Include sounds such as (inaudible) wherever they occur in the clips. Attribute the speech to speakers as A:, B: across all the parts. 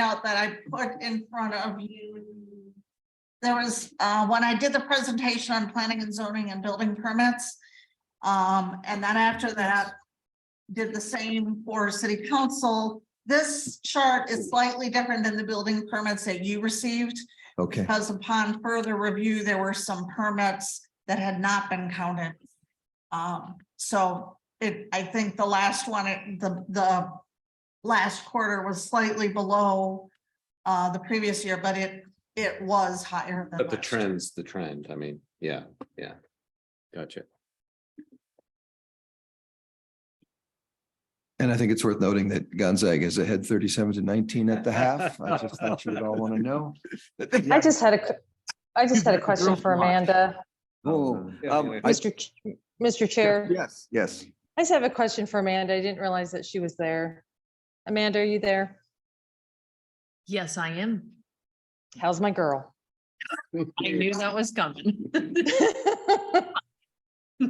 A: handout that I put in front of you. There was, uh, when I did the presentation on planning and zoning and building permits. Um, and then after that, did the same for city council. This chart is slightly different than the building permits that you received.
B: Okay,
C: Um,
A: Because upon further review, there were some permits that had not been counted. Um, so it, I think the last one, it- the, the last quarter was slightly below uh, the previous year, but it, it was higher than.
C: But the
A: last year.
C: trends, the trend, I mean, yeah, yeah. Gotcha.
B: and I think it's worth noting that Gonzaga is ahead thirty-seven to nineteen at
C: (laughs)
B: the half. I just thought you would all want to know.
D: I just had a, que- I just had a question for
C: Girls watch.
D: Amanda.
B: Oh, (laughs) um, I-
D: Mr. Ch- Mr. Chair,
B: Yes, yes.
D: I just have a question for Amanda. I didn't realize that she was there. Amanda, are you there?
E: Yes, I am.
D: How's my girl? (laughs)
E: I knew that was coming. (laughs)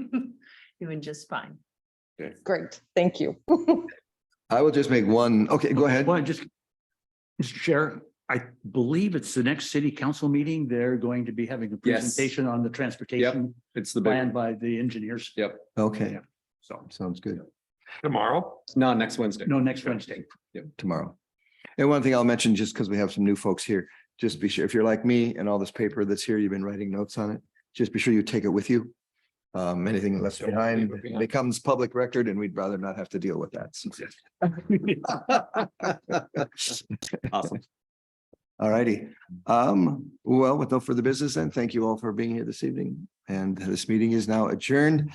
E: Doing just fine.
D: Great, thank you.
B: I will just make one, okay, go ahead.
F: Well, I just, Mr. Chair, I believe it's the next city council meeting. They're going to be having a
C: Yes.
F: presentation on the transportation
C: It's the
F: plan
C: big,
F: by the engineers.
C: Yeah.
B: Okay,
F: So,
B: sounds good.
C: tomorrow? No, next Wednesday.
F: no, next
B: (laughs)
F: Wednesday.
B: tomorrow. And one thing I'll mention, just because we have some new folks here, just be sure, if you're like me and all this paper that's here, you've been writing notes on it, just be sure you take it with you. Um, anything left
C: Don't
B: behind
C: leave it behind.
B: becomes public record and we'd rather not have to deal with that. so.
C: Awesome.
B: All righty. Um, well, with no further business, then thank you all for being here this evening. And this meeting is now adjourned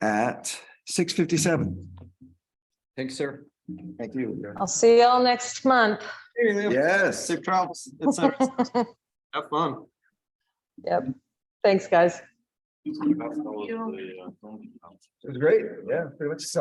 B: at six fifty-seven.
C: Thanks, sir.
B: Thank you.
D: I'll see y'all next month.
B: Yes.
C: travels.
B: (laughs)
C: Have fun.
D: Yep, (laughs) thanks, guys.
A: you.
B: It was great. Yeah, pretty much.